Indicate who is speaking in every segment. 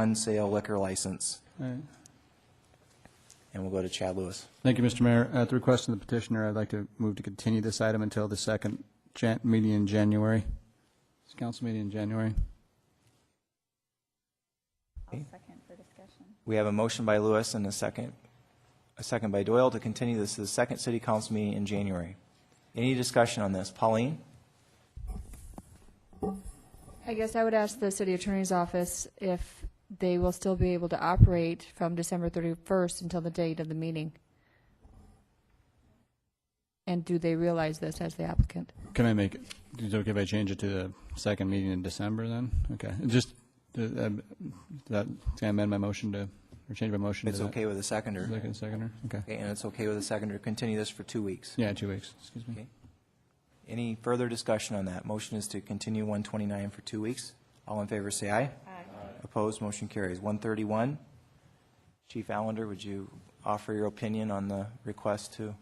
Speaker 1: on-sale liquor license,
Speaker 2: All right.
Speaker 1: and we'll go to Chad Lewis.
Speaker 2: Thank you, Mr. Mayor. At the request of the petitioner, I'd like to move to continue this item until the second jan- meeting in January. It's council meeting in January.
Speaker 3: I'll second for discussion.
Speaker 1: We have a motion by Lewis and a second, a second by Doyle to continue this to the second city council meeting in January. Any discussion on this? Pauline?
Speaker 4: I guess I would ask the city attorney's office if they will still be able to operate from December 31st until the date of the meeting. And do they realize this as the applicant?
Speaker 2: Can I make, it? is it okay if I change it to the second meeting in December then? Okay, just, uh, um, that, can I amend my motion to, or change my motion to
Speaker 1: It's
Speaker 2: that?
Speaker 1: okay with a seconder.
Speaker 2: Second, seconder, okay.
Speaker 1: Okay, and it's okay with a seconder. Continue this for two weeks.
Speaker 2: Yeah, two weeks, excuse me.
Speaker 1: Okay. Any further discussion on that? Motion is to continue 129 for two weeks. All in favor, say aye. Aye. Opposed, motion carries. 131, Chief Allender, would you offer your opinion on the request to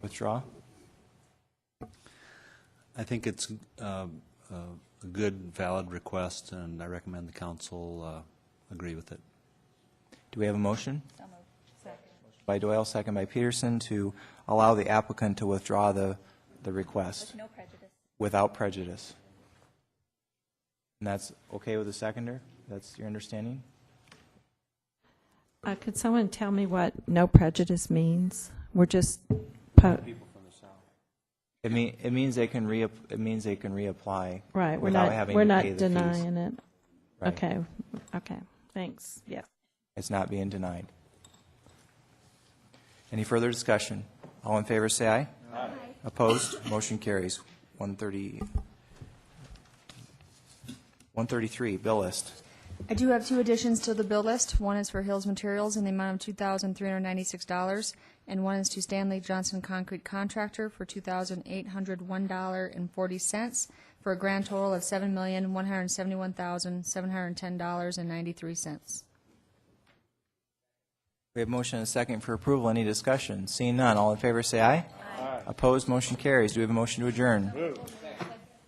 Speaker 1: withdraw?
Speaker 5: I think it's um, uh, a good, valid request, and I recommend the council uh, agree with it.
Speaker 1: Do we have a motion?
Speaker 3: So moved. Second.
Speaker 1: By Doyle, second by Peterson, to allow the applicant to withdraw the, the request
Speaker 3: No prejudice.
Speaker 1: without prejudice. And that's okay with the seconder? That's your understanding?
Speaker 6: Uh, Could someone tell me what no prejudice means? We're just, po-
Speaker 1: It mean, it means they can re, it means they can reapply.
Speaker 6: right, we're
Speaker 1: without
Speaker 6: not,
Speaker 1: having
Speaker 6: we're
Speaker 1: to pay
Speaker 6: not
Speaker 1: the fees.
Speaker 6: denying it.
Speaker 1: Right.
Speaker 6: Okay, okay, thanks, yeah.
Speaker 1: It's not being denied. Any further discussion? All in favor, say aye. Aye. Opposed? Motion carries. 130, 133, bill list.
Speaker 4: I do have two additions to the bill list. One is for Hills Materials in the amount of $2,396, and one is to Stanley Johnson Concrete Contractor for $2,801.40, for a grand total of $7,171,710.93.
Speaker 1: We have motion and a second for approval. Any discussion? Seeing none, all in favor say aye. Aye. Opposed, motion carries. Do we have a motion to adjourn?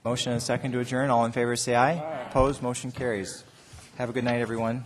Speaker 1: Motion and a second to adjourn. All in favor say aye. Opposed, motion carries. Have a good night, everyone.